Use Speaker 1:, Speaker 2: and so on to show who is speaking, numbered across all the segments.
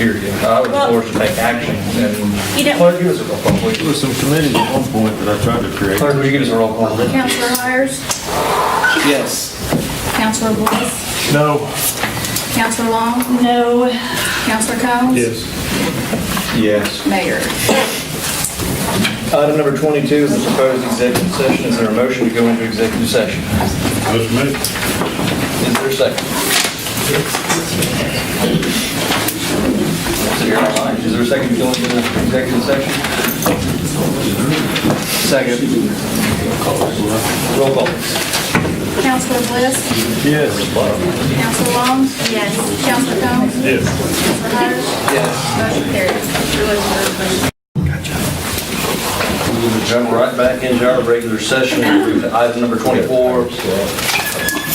Speaker 1: period. I was forced to take action,
Speaker 2: You
Speaker 1: and
Speaker 2: don't-
Speaker 1: clerk, give us a roll call,
Speaker 3: There
Speaker 1: please.
Speaker 3: was some committees at one point that I tried to create.
Speaker 1: Clerk, would you give us a roll call?
Speaker 2: Counselor Hires,
Speaker 1: Yes.
Speaker 2: Counselor Bliss,
Speaker 3: No.
Speaker 2: Counselor Long? No. Counselor Combs?
Speaker 3: Yes.
Speaker 1: Yes.
Speaker 2: Mayor.
Speaker 1: Item number 22 is the proposed executive session. Is there a motion to go into executive session?
Speaker 3: Motion made.
Speaker 1: Is there a second? Is there a line? Is there a second to go into the executive session? Second. Roll call.
Speaker 2: Counselor Bliss,
Speaker 3: Yes.
Speaker 2: Counselor Long? Yes. Counselor Combs?
Speaker 3: Yes.
Speaker 2: Counselor Hires?
Speaker 1: Yes.
Speaker 2: Motion carries.
Speaker 1: We'll jump right back into our regular session. We'll move to Item number 24.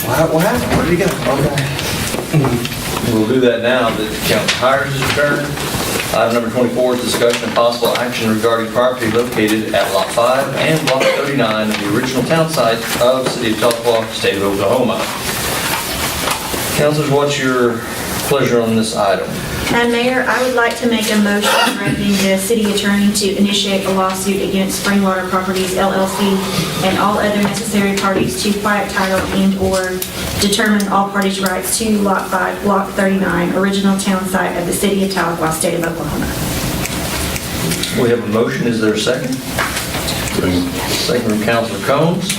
Speaker 1: Wow, wow, where'd you go? Okay. We'll do that now that Council Hires is adjourned. Item number 24 is discussion of possible action regarding property located at Lot 5 and Lot 39 of the original town site of City of Tuckahoe, State of Oklahoma. Councilors, what's your pleasure on this item?
Speaker 4: Madam Uh, Mayor, I would like to make a motion directing the city attorney to initiate a lawsuit against Springwater Properties LLC and all other necessary parties to quiet title and/or determine all parties' rights to Lot 5, Block 39, original town site of the city of Tahlequah, state of Oklahoma.
Speaker 1: We have a motion, is there a second? Second from Councilor Combs.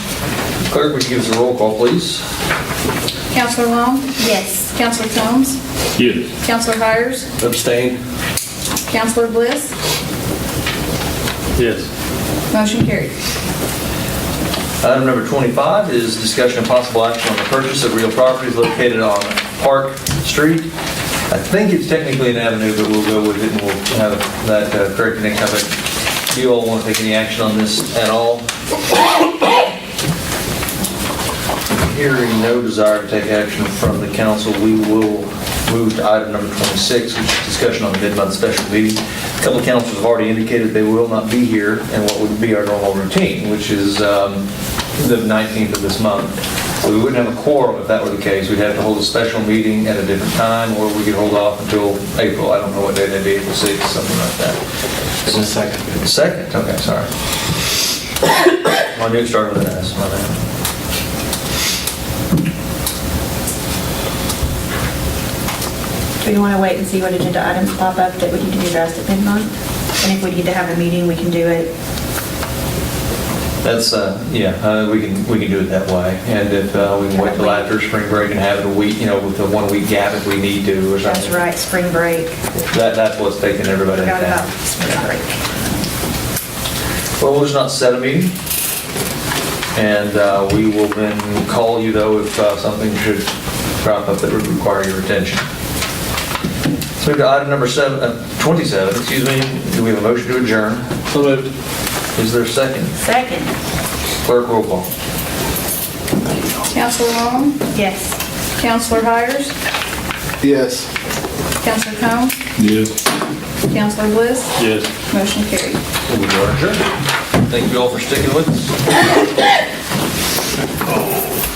Speaker 1: Clerk, would you give us a roll call, please?
Speaker 2: Counselor Long? Yes. Counselor Combs?
Speaker 3: Yes.
Speaker 2: Counselor Hires,
Speaker 1: Abstain.
Speaker 2: Counselor Bliss,
Speaker 3: Yes.
Speaker 2: motion carries.
Speaker 1: Item number 25 is discussion of possible action on the purchase of real properties located on Park Street. I think it's technically an avenue, but we'll go with it and we'll have that uh, corrected next time. But Do you all want to take any action on this at all? Hearing no desire to take action from the council, we will move to item number 26, which is discussion on the mid-month special meeting. A couple of councils have already indicated they will not be here in what would be our normal routine, which is um, the 19th of this month. So we wouldn't have a quorum if that were the case. We'd have to hold a special meeting at a different time, or we could hold off until April. I don't know what day that'd be, April 6th, something like that. It's second. Second, okay, sorry. My new started with an S, my bad.
Speaker 4: Do you want to wait and see what agenda items pop up that we need to be addressed at mid-month? And if we need to have a meeting, we can do it.
Speaker 1: That's, uh, yeah, uh, we can, we can do it that way. And if uh, we can wait till after spring break and have it a week, you know, with the one-week gap if we need to or
Speaker 4: That's
Speaker 1: something.
Speaker 4: right, spring break.
Speaker 1: That, that's what's taking everybody in
Speaker 4: Forgot about
Speaker 1: town.
Speaker 4: spring break.
Speaker 1: Well, we'll just not set a meeting. And uh, we will then call you though if uh, something should crop up that would require your attention. Let's move to item number seven, uh, 27, excuse me. Do we have a motion to adjourn? So moved. Is there a second?
Speaker 4: Second,
Speaker 1: Clerk roll call.
Speaker 2: Counselor Long?
Speaker 4: yes.
Speaker 2: Counselor Hires,
Speaker 5: Yes.
Speaker 2: Counselor Combs?
Speaker 3: Yes.
Speaker 2: Counselor Bliss,
Speaker 3: Yes.
Speaker 2: motion carries.
Speaker 1: We are adjourned. Thank you all for sticking with us.